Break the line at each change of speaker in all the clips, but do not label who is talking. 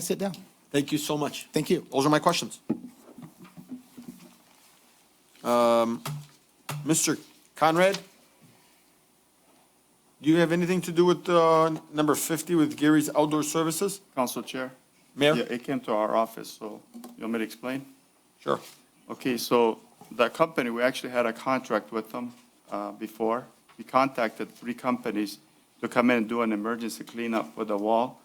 Sit down.
Thank you so much.
Thank you.
Those are my questions. Um, Mr. Conrad? Do you have anything to do with uh, number 50 with Gary's Outdoor Services?
Council Chair?
Mayor?
Yeah, it came to our office, so you want me to explain?
Sure.
Okay, so that company, we actually had a contract with them uh, before. We contacted three companies to come in and do an emergency cleanup with the wall.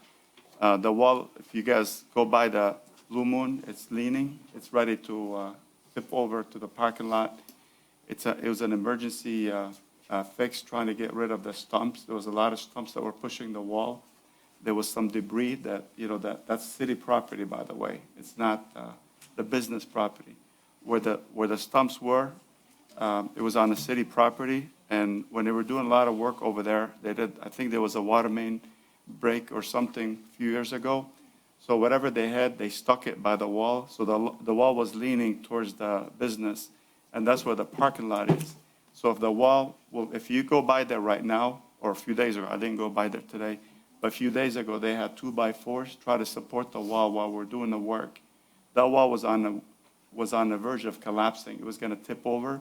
Uh, The wall, if you guys go by the Blue Moon, it's leaning, it's ready to uh, tip over to the parking lot. It's a, it was an emergency uh, uh, fix, trying to get rid of the stumps. There was a lot of stumps that were pushing the wall. There was some debris that, you know, that, that's city property, by the way. It's not uh, the business property where the, where the stumps were. um, It was on the city property, and when they were doing a lot of work over there, they did, I think there was a water main break or something a few years ago. So whatever they had, they stuck it by the wall, so the, the wall was leaning towards the business, and that's where the parking lot is. So if the wall, well, if you go by there right now, or a few days ago, I didn't go by there today, but a few days ago, they had two-by-fours try to support the wall while we're doing the work. That wall was on the, was on the verge of collapsing. It was going to tip over,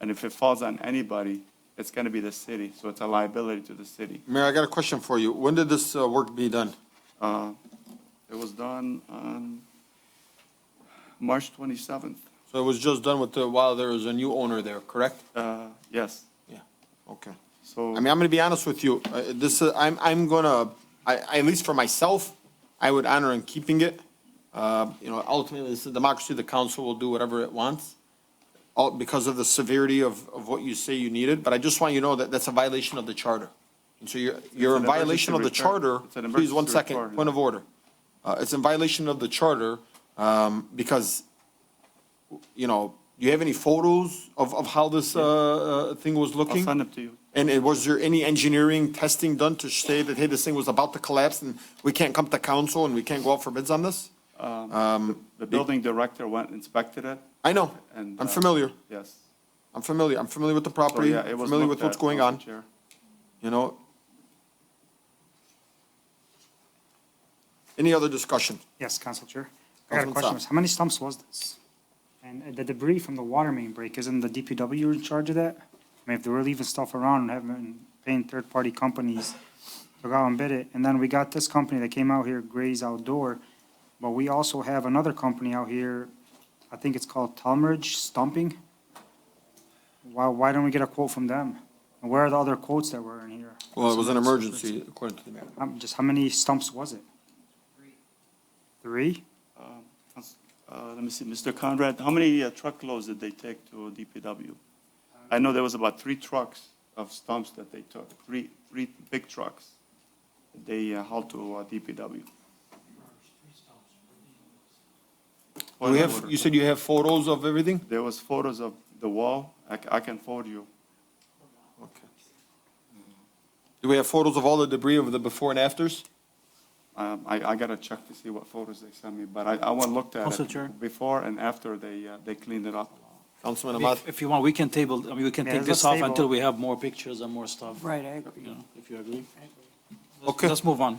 and if it falls on anybody, it's going to be the city, so it's a liability to the city.
Mayor, I got a question for you. When did this uh, work be done?
Uh, It was done on March 27th.
So it was just done with, the- while there was a new owner there, correct?
Uh, Yes,
Yeah, okay.
so.
I mean, I'm gonna be honest with you, uh, this, uh, I'm, I'm gonna, I, at least for myself, I would honor in keeping it. Uh, you know, ultimately, this is democracy, the council will do whatever it wants, all, because of the severity of, of what you say you needed, but I just want you to know that that's a violation of the charter. And so you're, you're in
an
violation of the
emergency
charter,
return. It's an
please, one
emergency
second,
return.
point of order. Uh, it's in violation of the charter, um, because you know, do you have any photos of, of how this, uh, uh, thing was looking?
send them to you.
And it- was there any engineering testing done to say that, hey, this thing was about to collapse and we can't come to council and we can't go out for bids on this?
The building director went, inspected it,
I know,
and.
I'm
uh,
familiar,
Yes.
I'm familiar, I'm familiar with the
So,
property,
yeah, it was
familiar with
looked
what's
at,
going
Council
on,
Chair.
you know? Any other discussion?
Yes, Council Chair. I got a
Councilman
question.
Saab.
How many stumps was this? And uh, the debris from the water main break, isn't the DPW in charge of that? I mean, if they were leaving stuff around and having, paying third-party companies to go out and bid it, and then we got this company that came out here, Gray's Outdoor, but we also have another company out here, I think it's called Talmadge Stumping. Why, why don't we get a quote from them? And where are the other quotes that were in here?
Well, it was an emergency, according to the mayor.
Um, Just how many stumps was it? Three. Three?
Um, Council- uh, Let me see, Mr. Conrad, how many uh, truckloads did they take to DPW? I know there was about three trucks of stumps that they took, three, three big trucks that they uh, hauled to uh, DPW.
Do we have, you said you have photos of everything?
There was photos of the wall, I c- I can forward you.
Okay. Do we have photos of all the debris of the before and afters?
Um, I, I gotta check to see what photos they sent me, but I, I went looked at
Council Chair.
it before and after they, uh, they cleaned it up.
Councilman Ahmad?
If if you want, we can table, I mean, we can
Yeah,
take
let's
this off
table.
until we have more pictures and more stuff.
Right, I agree.
You know, if you agree. Let's-
Okay.
Let's move on.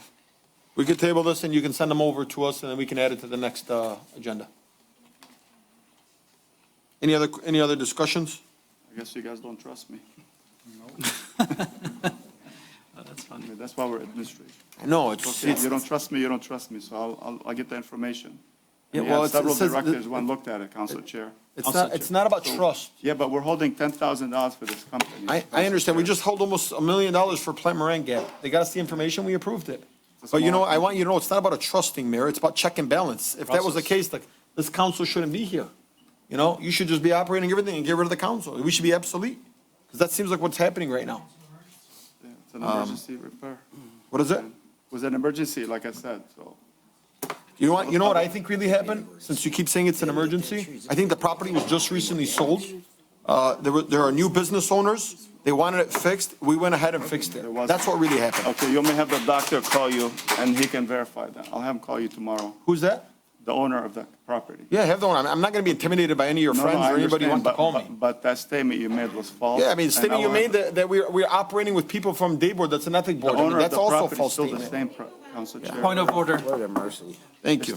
We could table this and you can send them over to us and then we can add it to the next, uh, agenda. Any other, any other discussions?
I guess you guys don't trust me.
Uh, That's
I
funny.
mean, that's why we're administration.
No, it's,
Okay,
it's,
you don't trust me, you don't trust me, so I'll, I'll, I'll get the information.
Yeah,
Yeah,
well, it's- it
several
says that-
directors, one looked at it, Council Chair.
it's not, it's not about trust.
Yeah, but we're holding ten thousand dollars for this company.
I, I understand. We
Council
just held almost a million dollars for Plant Moran Gap. They got us the information, we approved it.
It's a
But you know,
small-
I want you to know, it's not about a trusting mayor, it's about check and balance. If that was the
Process.
case, like, this council shouldn't be here. You know, you should just be operating everything and get rid of the council. We should be obsolete. Because that seems like what's happening right now.
Chair. Yeah, It's an
Um,
emergency repair.
What is it?
It was an emergency, like I said, so.
You know what, you know what I think really happened? Since you keep saying it's an emergency, I think the property was just recently sold. Uh, there were, there are new business owners. They wanted it fixed. We went ahead and fixed it. That's what really happened.
Okay, you may have the doctor call you, and he can verify that. I'll have him call you tomorrow.
Who's that?
the owner of the property.
Yeah, have the one. I'm, I'm not gonna be intimidated by any of your
No, no,
friends
I
or anybody who
understand,
wants to
but-
call me.
but- But that statement you made was false.
Yeah, I mean,
and
statement you
will-
made that, that we're, we're operating with people from Dayboard, that's an ethic
The
board. I mean,
owner of
that's
the
also a
property is
false
still the
statement.
same, pro- Council Chair.
Point of order.
Lord have mercy.
Thank you.